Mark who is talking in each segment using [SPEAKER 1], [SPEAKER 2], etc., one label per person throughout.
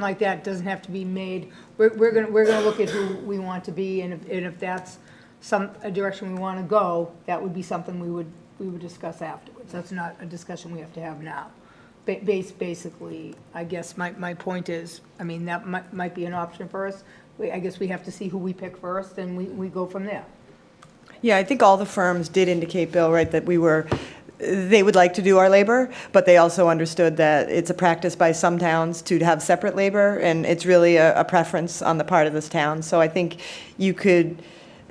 [SPEAKER 1] like that doesn't have to be made. We're, we're gonna, we're gonna look at who we want to be, and if, and if that's some, a direction we want to go, that would be something we would, we would discuss afterwards. That's not a discussion we have to have now. Ba- Base, basically, I guess my, my point is, I mean, that might, might be an option for us. We, I guess we have to see who we pick first, and we, we go from there.
[SPEAKER 2] Yeah, I think all the firms did indicate, Bill, right, that we were, they would like to do our labor, but they also understood that it's a practice by some towns to have separate labor, and it's really a, a preference on the part of this town. So I think you could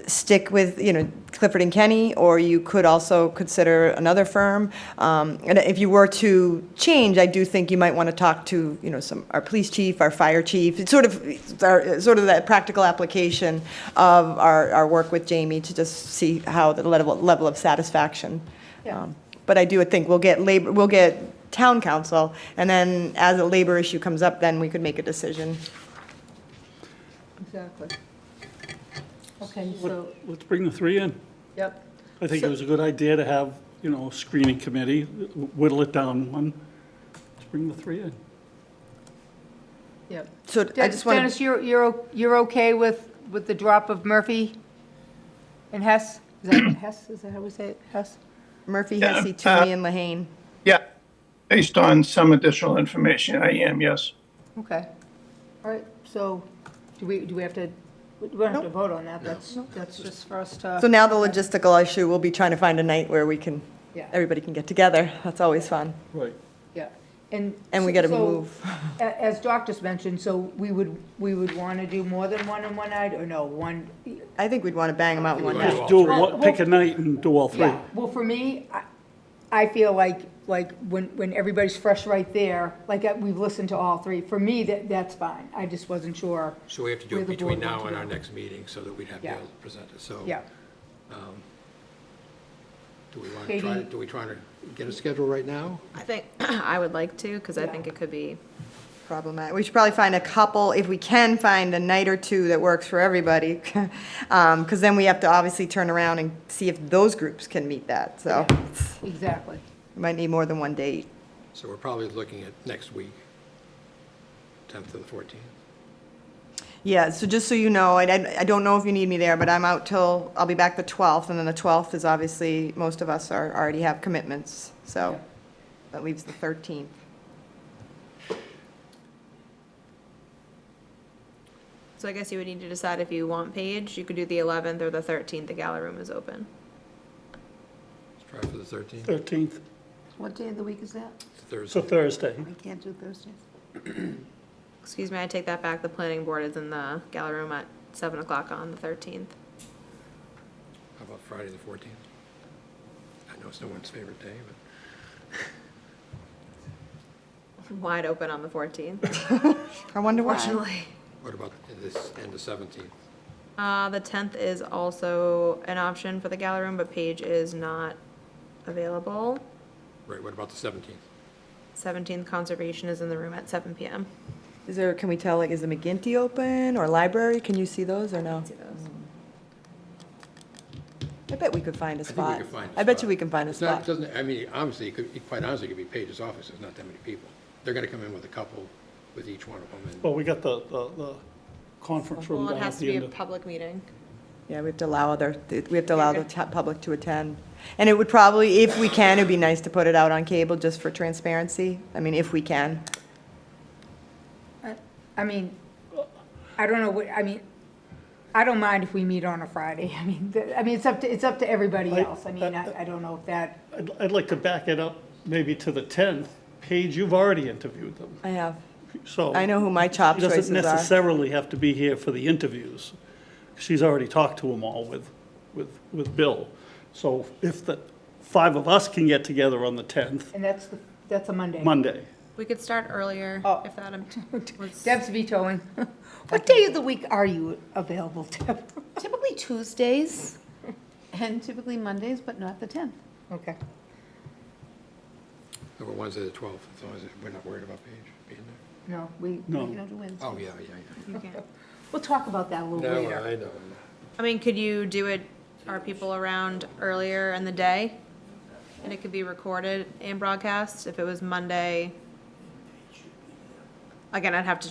[SPEAKER 2] stick with, you know, Clifford and Kenny, or you could also consider another firm. Um, And if you were to change, I do think you might want to talk to, you know, some, our police chief, our fire chief, it's sort of, it's our- sort of that practical application of our, our work with Jamie to just see how the level, level of satisfaction.
[SPEAKER 1] Yeah.
[SPEAKER 2] Um, But I do think we'll get labor, we'll get town council, and then as a labor issue comes up, then we could make a decision.
[SPEAKER 1] Exactly. Okay, so,
[SPEAKER 3] Let- Let's bring the three in.
[SPEAKER 1] yep.
[SPEAKER 3] I think it was a good idea to have, you know, a screening committee, whittle it down one. Let's bring the three in.
[SPEAKER 1] Yep.
[SPEAKER 2] So I just want to.
[SPEAKER 1] Dennis, you're, you're, o- you're okay with, with the drop of Murphy and Hess? Is that Hess, is that how we say it, Hess?
[SPEAKER 2] Murphy,
[SPEAKER 4] Yeah,
[SPEAKER 2] Hesse,
[SPEAKER 4] uh,
[SPEAKER 2] Tui, and Lehane.
[SPEAKER 4] Yeah, based on some additional information, I am, yes.
[SPEAKER 1] Okay. All right, so do we, do we have to, we don't have to vote on that, that's, that's just for us
[SPEAKER 2] So
[SPEAKER 1] to,
[SPEAKER 2] now the logistical issue, we'll be trying to find a night where we can,
[SPEAKER 1] Yeah.
[SPEAKER 2] everybody can get together. That's always fun.
[SPEAKER 3] Right.
[SPEAKER 1] yeah. And.
[SPEAKER 2] And we gotta
[SPEAKER 1] so-
[SPEAKER 2] move.
[SPEAKER 1] a- As Doc just mentioned, so we would, we would want to do more than one in one night, or no, one,
[SPEAKER 2] I think we'd want to bang them out in one night.
[SPEAKER 3] Just do,
[SPEAKER 1] three.
[SPEAKER 3] one- pick a night and do all three.
[SPEAKER 1] Yeah, well, for me, I, I feel like, like, when, when everybody's fresh right there, like, uh, we've listened to all three, for me, that, that's fine, I just wasn't sure.
[SPEAKER 5] So we have to do
[SPEAKER 1] where
[SPEAKER 5] it
[SPEAKER 1] the board
[SPEAKER 5] between now
[SPEAKER 1] wants
[SPEAKER 5] and
[SPEAKER 1] to
[SPEAKER 5] our
[SPEAKER 1] go.
[SPEAKER 5] next meeting so that we'd have
[SPEAKER 1] Yeah.
[SPEAKER 5] Dale present it. So
[SPEAKER 1] Yeah,
[SPEAKER 5] do we want to try,
[SPEAKER 1] Katie?
[SPEAKER 5] do we try to get a schedule right now?
[SPEAKER 6] I think, I would like to, because I think it could be,
[SPEAKER 2] Problematic. We should probably find a couple, if we can find a night or two that works for everybody. Um, cause then we have to obviously turn around and see if those groups can meet that. So
[SPEAKER 1] exactly.
[SPEAKER 2] we might need more than one date.
[SPEAKER 5] So we're probably looking at next week, 10th to the 14th.
[SPEAKER 2] Yeah, so just so you know, I, I I don't know if you need me there, but I'm out till, I'll be back the 12th, and then the 12th is obviously, most of us are, already have commitments, so that leaves the 13th.
[SPEAKER 6] so I guess you would need to decide if you want Paige, you could do the 11th or the 13th, the gala room is open.
[SPEAKER 5] Let's try for the 13th,
[SPEAKER 3] 13th,
[SPEAKER 7] What day of the week is that?
[SPEAKER 5] It's
[SPEAKER 3] it's a
[SPEAKER 5] Thursday.
[SPEAKER 3] Thursday.
[SPEAKER 7] I can't do Thursdays.
[SPEAKER 6] Excuse me, I take that back, the planning board is in the gala room at 7 o'clock on the 13th.
[SPEAKER 5] How about Friday, the 14th? I know it's no one's favorite day, but
[SPEAKER 6] Wide open on the 14th,
[SPEAKER 2] I wonder why.
[SPEAKER 6] fortunately.
[SPEAKER 5] what about this, and the 17th?
[SPEAKER 6] Uh, the 10th is also an option for the gala room, but Paige is not available.
[SPEAKER 5] Right, what about the 17th?
[SPEAKER 6] 17th conservation is in the room at 7 PM.
[SPEAKER 2] Is there, can we tell, like, is the McGinty open, or library, can you see those, or no?
[SPEAKER 6] See those.
[SPEAKER 2] I bet we could find a
[SPEAKER 5] I think we
[SPEAKER 2] spot.
[SPEAKER 5] could find a
[SPEAKER 2] I bet
[SPEAKER 5] spot.
[SPEAKER 2] you we can find a
[SPEAKER 5] It's not,
[SPEAKER 2] spot.
[SPEAKER 5] doesn't, I mean, honestly, it could, quite honestly, it could be Paige's office, there's not that many people. They're going to come in with a couple, with each one of them, and
[SPEAKER 3] Well, we got the, the, the conference room
[SPEAKER 6] Well, it
[SPEAKER 3] down
[SPEAKER 6] has
[SPEAKER 3] at
[SPEAKER 6] to
[SPEAKER 3] the
[SPEAKER 6] be
[SPEAKER 3] end
[SPEAKER 6] a
[SPEAKER 3] of.
[SPEAKER 6] public meeting.
[SPEAKER 2] Yeah, we have to allow other, we have to allow the ta- public to attend. And it would probably, if we can, it'd be nice to put it out on cable, just for transparency. I mean, if we can.
[SPEAKER 1] I mean, I don't know, what I mean, I don't mind if we meet on a Friday, I mean, th- I mean, it's up to, it's up to everybody
[SPEAKER 3] I-
[SPEAKER 1] else, I mean, I, I don't know if that,
[SPEAKER 3] I'd, I'd like to back it up maybe to the 10th. Paige, you've already interviewed them,
[SPEAKER 2] I have,
[SPEAKER 3] so.
[SPEAKER 2] I know who my top
[SPEAKER 3] She
[SPEAKER 2] choices
[SPEAKER 3] doesn't
[SPEAKER 2] are.
[SPEAKER 3] necessarily have to be here for the interviews. She's already talked to them all with, with, with Bill. So if the five of us can get together on the 10th,
[SPEAKER 1] and that's, the that's a Monday.
[SPEAKER 3] Monday,
[SPEAKER 6] We could start earlier
[SPEAKER 1] Oh.
[SPEAKER 6] if that was.
[SPEAKER 1] Deb's vetoing. What day of the week are you available, Deb?
[SPEAKER 7] Typically Tuesdays and typically Mondays, but not the 10th.
[SPEAKER 1] Okay.
[SPEAKER 5] Number Wednesday, the 12th, as long as we're not worried about Paige being there.
[SPEAKER 1] No, we,
[SPEAKER 7] You
[SPEAKER 3] no.
[SPEAKER 7] don't do Wednesdays.
[SPEAKER 5] Oh, yeah, yeah, yeah.
[SPEAKER 6] You can't.
[SPEAKER 1] we'll talk about that a little
[SPEAKER 5] No,
[SPEAKER 1] later.
[SPEAKER 5] I know.
[SPEAKER 6] I mean, could you do it, are people around earlier in the day? And it could be recorded and broadcast if it was Monday. Again, I'd have to